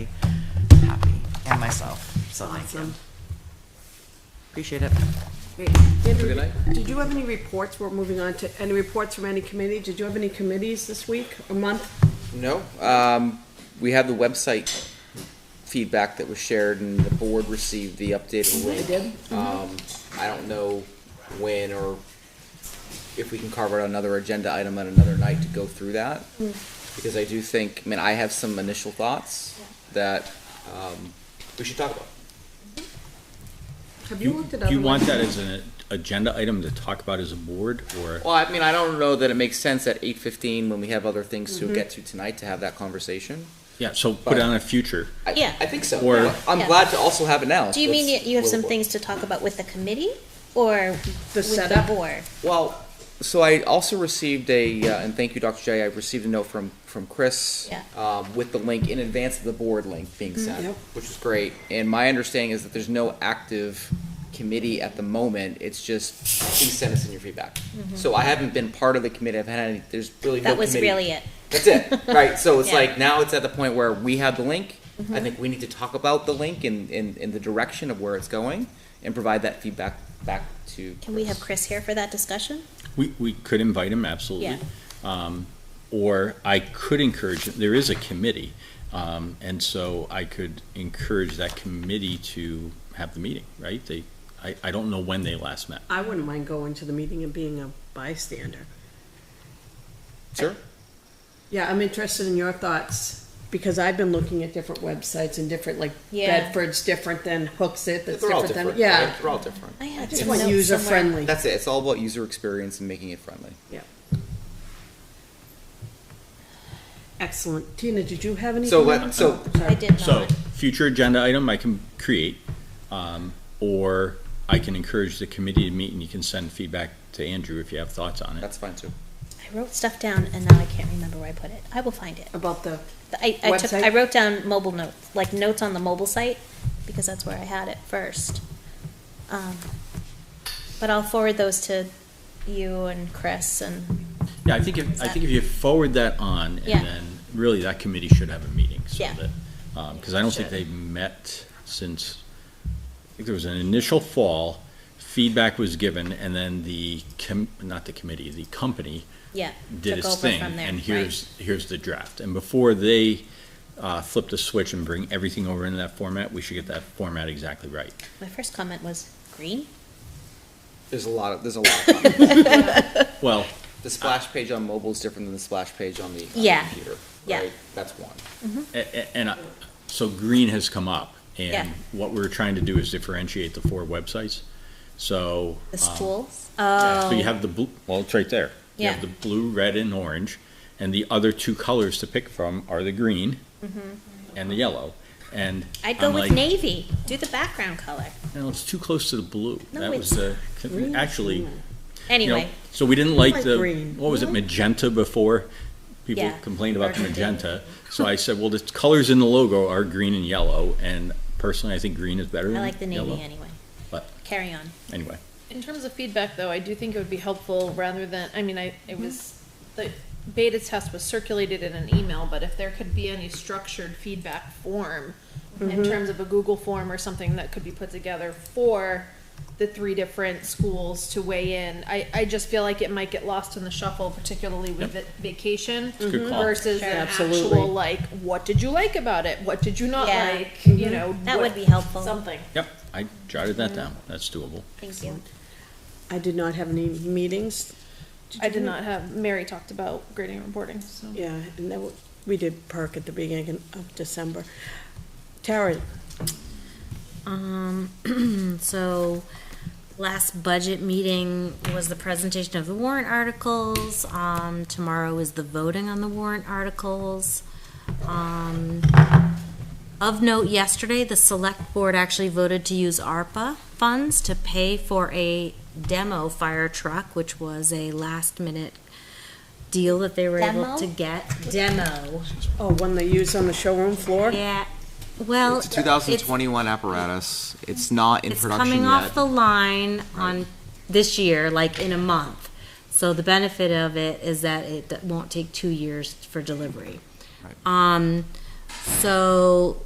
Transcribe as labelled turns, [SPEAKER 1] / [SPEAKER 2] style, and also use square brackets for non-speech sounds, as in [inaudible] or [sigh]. [SPEAKER 1] very happy, and myself, so thank you.
[SPEAKER 2] Awesome.
[SPEAKER 1] Appreciate it.
[SPEAKER 2] Great.
[SPEAKER 3] good
[SPEAKER 2] Andrew,
[SPEAKER 3] night.
[SPEAKER 2] did you have any reports, we're moving on to, any reports from any committee? Did you have any committees this week or month?
[SPEAKER 3] No, um, we have the website feedback that was shared and the board received the updated
[SPEAKER 2] They
[SPEAKER 3] link.
[SPEAKER 2] did?
[SPEAKER 3] Um, I don't know when or if we can carve out another agenda item on another night to go through that.
[SPEAKER 4] Hmm.
[SPEAKER 3] Because I do think, I mean, I have some initial thoughts that, um, we should talk about.
[SPEAKER 2] Have you
[SPEAKER 5] You-
[SPEAKER 2] looked at
[SPEAKER 5] Do
[SPEAKER 2] other
[SPEAKER 5] you want
[SPEAKER 2] ones?
[SPEAKER 5] that as an agenda item to talk about as a board, or?
[SPEAKER 3] Well, I mean, I don't know that it makes sense at eight fifteen when we have other things
[SPEAKER 4] Mm-hmm.
[SPEAKER 3] to get to tonight to have that conversation.
[SPEAKER 5] Yeah, so put it on a future.
[SPEAKER 3] I-
[SPEAKER 4] Yeah.
[SPEAKER 3] I think so.
[SPEAKER 5] Or-
[SPEAKER 3] I'm
[SPEAKER 4] Yeah.
[SPEAKER 3] glad to also have it now.
[SPEAKER 4] Do you mean you-
[SPEAKER 3] Let's-
[SPEAKER 4] you have some
[SPEAKER 3] we'll-
[SPEAKER 4] things to talk about with the committee or with the
[SPEAKER 2] setup?
[SPEAKER 4] board?
[SPEAKER 3] Well, so I also received a, uh, and thank you, Dr. J, I received a note from, from Chris.
[SPEAKER 4] Yeah.
[SPEAKER 3] Um, with the link in advance of the board link being sent,
[SPEAKER 2] yep.
[SPEAKER 3] which was great. And my understanding is that there's no active committee at the moment. It's just, please send us in your feedback. So I haven't been part of the committee. I've had any, there's really no
[SPEAKER 4] Mm-hmm. That
[SPEAKER 3] committee.
[SPEAKER 4] was really it.
[SPEAKER 3] That's
[SPEAKER 4] [laughs]
[SPEAKER 3] it, right? So it's
[SPEAKER 4] Yeah. Mm-hmm.
[SPEAKER 3] like now it's at the point where we have the link. I think we need to talk about the link and, and, and the direction of where it's going and provide that feedback back to.
[SPEAKER 4] Can we have Chris here for that discussion?
[SPEAKER 5] We, we could invite him, absolutely. Um, Or I could encourage, there is a committee, um, and so I could encourage that committee to have the meeting, right? They, I, I don't know when they last met.
[SPEAKER 2] I wouldn't mind going to the meeting and being a bystander.
[SPEAKER 3] Sure.
[SPEAKER 2] Yeah, I'm interested in your thoughts, because I've been looking at different websites and different, like
[SPEAKER 4] Yeah.
[SPEAKER 2] Bedford's different than Hook's It, that's
[SPEAKER 3] They're all
[SPEAKER 2] different than,
[SPEAKER 3] different.
[SPEAKER 2] yeah.
[SPEAKER 3] right? They're all different.
[SPEAKER 4] I had
[SPEAKER 2] Just
[SPEAKER 4] some
[SPEAKER 2] want
[SPEAKER 4] notes
[SPEAKER 2] user
[SPEAKER 4] somewhere.
[SPEAKER 2] friendly.
[SPEAKER 3] That's it. It's all about user experience and making it friendly.
[SPEAKER 2] Excellent. Tina, did you have any? Oh,
[SPEAKER 3] So let,
[SPEAKER 2] comments?
[SPEAKER 3] so
[SPEAKER 4] I did
[SPEAKER 5] So,
[SPEAKER 4] not.
[SPEAKER 5] future agenda item I can create, um, or I can encourage the committee to meet and you can send feedback to Andrew if you have thoughts on it.
[SPEAKER 3] that's fine too.
[SPEAKER 4] I wrote stuff down and now I can't remember where I put it. I will find it.
[SPEAKER 2] About the,
[SPEAKER 4] I, I took,
[SPEAKER 2] Website?
[SPEAKER 4] I wrote down mobile notes, like notes on the mobile site, because that's where I had it first. Um, But I'll forward those to you and Chris and,
[SPEAKER 5] Yeah, I think if, I think if you forward that on,
[SPEAKER 4] Yeah.
[SPEAKER 5] and then really that committee should have a meeting, so
[SPEAKER 4] Yeah.
[SPEAKER 5] that, um, because I don't think
[SPEAKER 4] Should.
[SPEAKER 5] they've met since, I think there was an initial fall, feedback was given, and then the com, not the committee, the company
[SPEAKER 4] yeah.
[SPEAKER 5] did
[SPEAKER 4] took
[SPEAKER 5] its
[SPEAKER 4] over
[SPEAKER 5] thing,
[SPEAKER 4] from there,
[SPEAKER 5] and
[SPEAKER 4] right.
[SPEAKER 5] here's, here's the draft. And before they, uh, flip the switch and bring everything over into that format, we should get that format exactly right.
[SPEAKER 4] My first comment was green.
[SPEAKER 3] There's a lot of, there's a lot. Of content.
[SPEAKER 5] Well,
[SPEAKER 3] the splash page on mobile is different than the splash page on the, on the
[SPEAKER 4] Yeah.
[SPEAKER 3] computer.
[SPEAKER 4] Yeah.
[SPEAKER 3] Right? That's one.
[SPEAKER 5] A- a- And I- so green has come up,
[SPEAKER 4] Yeah.
[SPEAKER 5] and what we're trying to do is differentiate the four websites. So.
[SPEAKER 4] The
[SPEAKER 5] um,
[SPEAKER 4] stools.
[SPEAKER 5] yeah,
[SPEAKER 4] Oh.
[SPEAKER 5] So you have the blue, well, it's right there. You
[SPEAKER 4] Yeah.
[SPEAKER 5] have the blue, red, and orange, and the other two colors to pick from are the green
[SPEAKER 4] Mm-hmm.
[SPEAKER 5] and the yellow. And
[SPEAKER 4] I'd go
[SPEAKER 5] I'm
[SPEAKER 4] with
[SPEAKER 5] like,
[SPEAKER 4] navy. Do the background color.
[SPEAKER 5] No, it's too close to the blue.
[SPEAKER 4] No,
[SPEAKER 5] That was
[SPEAKER 4] it's
[SPEAKER 5] the, actually, you know,
[SPEAKER 4] Anyway,
[SPEAKER 5] so we didn't
[SPEAKER 2] Like
[SPEAKER 5] like the,
[SPEAKER 2] green.
[SPEAKER 5] what was it, magenta before? People
[SPEAKER 4] Yeah.
[SPEAKER 5] complained about the
[SPEAKER 4] Burgundy.
[SPEAKER 5] magenta. So I said, well, the colors in the logo are green and yellow, and personally, I think green is better
[SPEAKER 4] I
[SPEAKER 5] than
[SPEAKER 4] like the navy
[SPEAKER 5] yellow.
[SPEAKER 4] anyway.
[SPEAKER 5] But-
[SPEAKER 4] Carry on.
[SPEAKER 5] Anyway,
[SPEAKER 6] In terms of feedback, though, I do think it would be helpful rather than, I mean, I,
[SPEAKER 4] Mm-hmm.
[SPEAKER 6] it was, the beta test was circulated in an email, but if there could be any structured feedback form
[SPEAKER 4] Mm-hmm.
[SPEAKER 6] in terms of a Google form or something that could be put together for the three different schools to weigh in, I, I just feel like it might get lost in the shuffle, particularly with
[SPEAKER 5] Yep.
[SPEAKER 6] va- vacation
[SPEAKER 5] a good call.
[SPEAKER 6] versus an
[SPEAKER 2] Absolutely.
[SPEAKER 6] actual, like, what did you like about it? What did you not
[SPEAKER 4] Yeah. Mm-hmm.
[SPEAKER 6] like? You know?
[SPEAKER 4] That
[SPEAKER 6] what-
[SPEAKER 4] would be helpful.
[SPEAKER 6] Something.
[SPEAKER 5] yep, I jotted that down. That's doable.
[SPEAKER 4] Thank you.
[SPEAKER 2] I did not have any meetings.
[SPEAKER 6] I
[SPEAKER 2] you?
[SPEAKER 6] did not have, Mary talked about grading and reporting, so.
[SPEAKER 2] Yeah, and that, w- we did perk at the beginning of December. Tara,
[SPEAKER 7] Um, [clears throat] so last budget meeting was the presentation of the warrant articles. Um, tomorrow is the voting on the warrant articles. Um, of note, yesterday, the select board actually voted to use ARPA funds to pay for a demo fire truck, which was a last minute deal that they were able
[SPEAKER 4] Demo?
[SPEAKER 7] to get. Demo.
[SPEAKER 2] oh, one they use on the showroom floor?
[SPEAKER 7] Yeah, well.
[SPEAKER 3] It's a 2021 apparatus. It's not in
[SPEAKER 7] it's
[SPEAKER 3] production
[SPEAKER 7] coming off the
[SPEAKER 3] yet.
[SPEAKER 7] line on this year, like in a month. So the benefit of it is that it won't take two years for delivery. Um, so